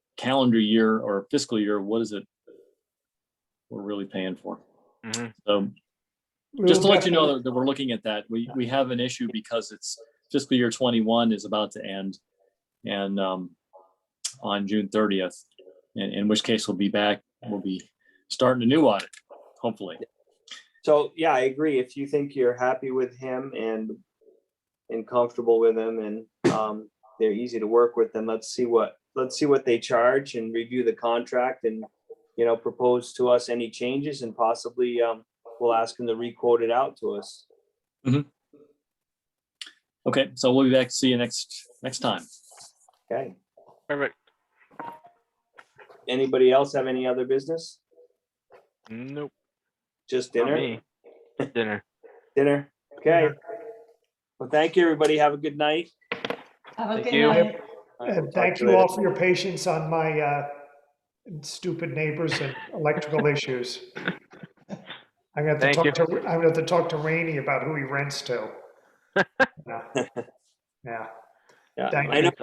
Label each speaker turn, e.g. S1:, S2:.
S1: calendar year or fiscal year, what is it? We're really paying for.
S2: Mhm.
S1: So just to let you know that- that we're looking at that, we, we have an issue because it's fiscal year twenty-one is about to end. And um, on June thirtieth, in, in which case we'll be back, we'll be starting a new audit, hopefully.
S3: So, yeah, I agree. If you think you're happy with him and and comfortable with him and um they're easy to work with, then let's see what let's see what they charge and review the contract and you know, propose to us any changes and possibly um we'll ask them to requote it out to us.
S1: Okay, so we'll be back. See you next, next time.
S3: Okay.
S2: Perfect.
S3: Anybody else have any other business?
S2: Nope.
S3: Just
S2: not
S3: dinner?
S2: me. Dinner.
S3: Dinner. Okay. Well, thank you, everybody. Have a good night.
S4: Have a
S2: Thank
S4: good
S2: you.
S4: night.
S3: All right,
S5: And
S3: we'll talk
S5: thank
S3: to
S5: you
S3: later.
S5: all for your patience on my uh, stupid neighbors and electrical issues. I'm gonna have to
S2: Thank you.
S5: talk to, I'm gonna have to talk to Rainey about who he rents to. Yeah. Yeah.
S3: Yeah.
S5: Thank
S3: I
S5: you.
S3: know